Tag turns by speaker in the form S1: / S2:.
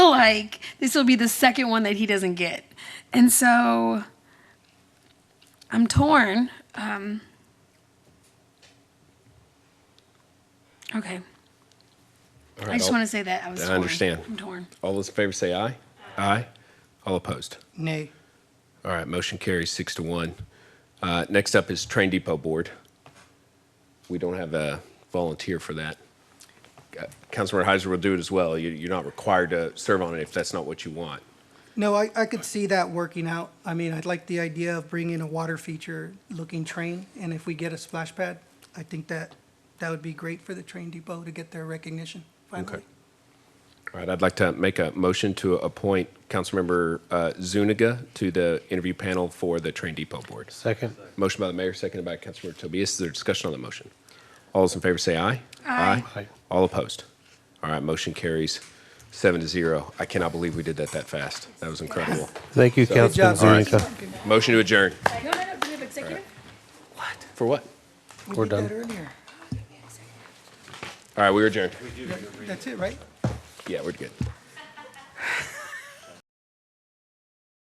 S1: like this will be the second one that he doesn't get. And so I'm torn. Um, okay.
S2: All
S1: I
S2: right,
S1: just
S2: all-
S1: want to say that I was
S2: I
S1: torn.
S2: understand.
S1: I'm torn.
S2: All those in favor say aye. Aye. All opposed.
S3: Nay.
S2: All right, motion carries six to one. Uh, Next up is Train Depot Board. We don't have a volunteer for that. Uh, Councilmember Heiser will do it as well. You- You're not required to serve on it if that's not what you want.
S3: No, I, I could see that working out. I mean, I'd like the idea of bringing a water feature looking train. And if we get a splash pad, I think that, that would be great for the train depot to get their recognition finally.
S2: Okay. All right, I'd like to make a motion to appoint Councilmember uh, Zuniga to the interview panel for the Train Depot Board.
S4: Second.
S2: Motion by the mayor, seconded by Councilmember Tobias. Is there discussion on the motion? All those in favor say aye.
S1: Aye.
S4: Aye.
S2: All opposed? All right, motion carries seven to zero. I cannot believe we did that that fast. That was incredible.
S4: Thank you,
S3: Good job.
S4: Councilman Zuniga.
S2: Motion to adjourn.
S1: No, no, no. Do we have executive?
S2: For what?
S3: We
S4: We're
S3: did that
S4: done.
S3: earlier.
S2: All right, we were adjourned.
S3: That's it, right?
S2: Yeah, we're good.